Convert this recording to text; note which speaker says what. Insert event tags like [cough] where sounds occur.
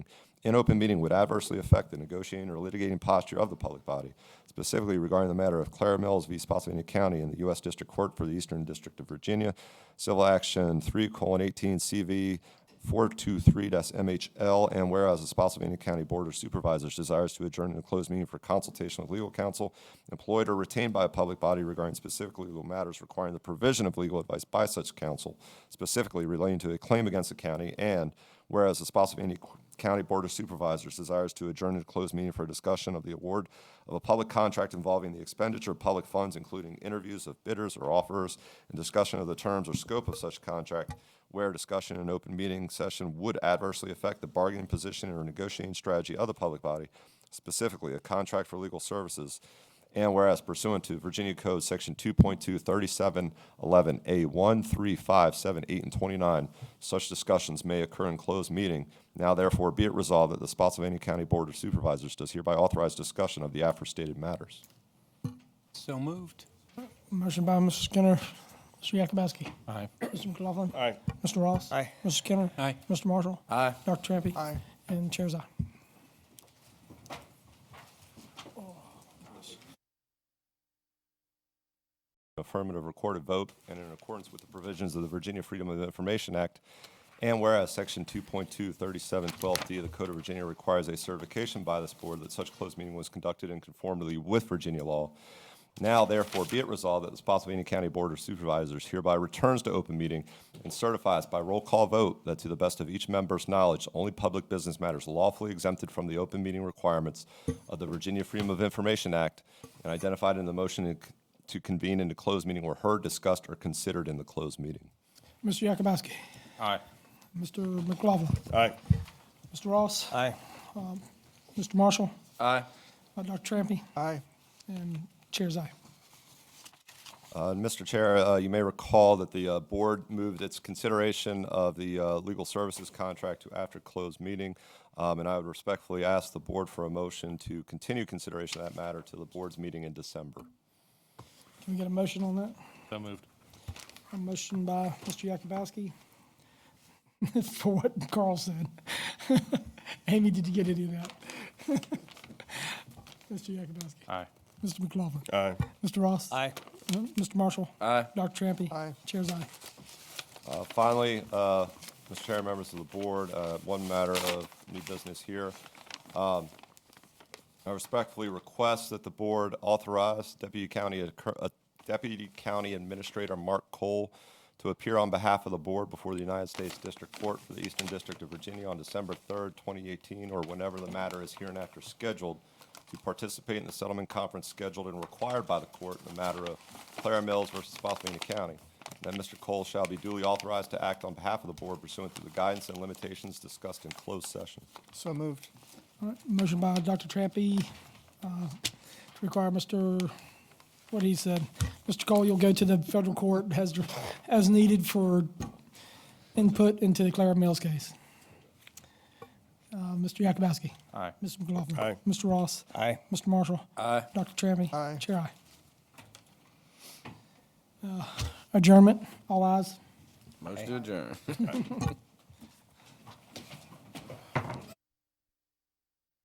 Speaker 1: in open meeting would adversely affect the negotiating or litigating posture of the public body, specifically regarding the matter of Clara Mills v. Spotsylvania County in the U.S. District Court for the Eastern District of Virginia, Civil Action 3:18 CV 423-MHL, and whereas the Spotsylvania County Board of Supervisors desires to adjourn in a closed meeting for consultation with legal counsel employed or retained by a public body regarding specific legal matters requiring the provision of legal advice by such counsel, specifically relating to a claim against the county, and whereas the Spotsylvania County Board of Supervisors desires to adjourn in a closed meeting for a discussion of the award of a public contract involving the expenditure of public funds, including interviews of bidders or offerers, and discussion of the terms or scope of such contract, where discussion in an open meeting session would adversely affect the bargaining position or negotiating strategy of the public body, specifically a contract for legal services. And whereas pursuant to Virginia Code Section 2.23711A1, 3, 5, 7, 8, and 29, such discussions may occur in closed meeting. Now therefore be it resolved that the Spotsylvania County Board of Supervisors does hereby authorize discussion of the aforestated matters.
Speaker 2: So moved.
Speaker 3: Motion by Mr. Skinner, Mr. Yakubowski,
Speaker 2: Aye.
Speaker 3: Mr. McLaughlin.
Speaker 4: Aye.
Speaker 3: Mr. Ross.
Speaker 4: Aye.
Speaker 3: Mr. Skinner.
Speaker 2: Aye.
Speaker 3: Mr. Marshall.
Speaker 2: Aye.
Speaker 3: Dr. Trampy.
Speaker 4: Aye.
Speaker 3: And Chair's eye.
Speaker 1: affirmative recorded vote and in accordance with the provisions of the Virginia Freedom of Information Act. And whereas Section 2.23712D of the Code of Virginia requires a certification by this board that such closed meeting was conducted in conformity with Virginia law. Now therefore be it resolved that the Spotsylvania County Board of Supervisors hereby returns to open meeting and certifies by roll call vote that to the best of each member's knowledge, only public business matters lawfully exempted from the open meeting requirements of the Virginia Freedom of Information Act and identified in the motion in- to convene into closed meeting were heard, discussed, or considered in the closed meeting.
Speaker 3: Mr. Yakubowski,
Speaker 2: Aye.
Speaker 3: Mr. McLaughlin,
Speaker 4: Aye.
Speaker 3: Mr. Ross,
Speaker 2: Aye.
Speaker 3: Mr. Marshall,
Speaker 2: Aye.
Speaker 3: uh, Dr. Trampy,
Speaker 4: Aye.
Speaker 3: and Chair's eye.
Speaker 1: Uh, Mr. Chair, uh, you may recall that the uh, board moved its consideration of the uh, legal services contract to after closed meeting, Um, and I would respectfully ask the board for a motion to continue consideration of that matter to the board's meeting in December.
Speaker 3: Can we get a motion on that?
Speaker 2: So moved.
Speaker 3: A motion by Mr. Yakubowski [laughs] for what Carl said. [laughs] Amy, did you get any of that? [laughs] Mr. Yakubowski,
Speaker 2: Aye.
Speaker 3: Mr. McLaughlin,
Speaker 4: Aye.
Speaker 3: Mr. Ross.
Speaker 2: Aye.
Speaker 3: Uh, Mr. Marshall.
Speaker 2: Aye.
Speaker 3: Dr. Trampy.
Speaker 4: Aye.
Speaker 3: Chair's eye.
Speaker 1: Uh, Finally, uh, Mr. Chair, members of the board, uh, one matter of new business here. I respectfully request that the board authorize Deputy County, uh, Deputy County Administrator Mark Cole to appear on behalf of the board before the United States District Court for the Eastern District of Virginia on December 3rd, 2018, or whenever the matter is hereinafter scheduled, to participate in the settlement conference scheduled and required by the court in the matter of Clara Mills versus Spotsylvania County. That Mr. Cole shall be duly authorized to act on behalf of the board pursuant to the guidance and limitations discussed in closed session.
Speaker 4: So moved.
Speaker 3: All right, motion by Dr. Trampy uh, to require Mr., what he said. Mr. Cole, you'll go to the federal court as, as needed for input into the Clara Mills case. Uh, Mr. Yakubowski.
Speaker 2: Aye.
Speaker 3: Mr. McLaughlin.
Speaker 4: Aye.
Speaker 3: Mr. Ross.
Speaker 2: Aye.
Speaker 3: Mr. Marshall.
Speaker 2: Aye.
Speaker 3: Dr. Trampy.
Speaker 4: Aye.
Speaker 3: Chair, aye. Uh, Adjournment, all ayes.
Speaker 5: Motion to adjourn.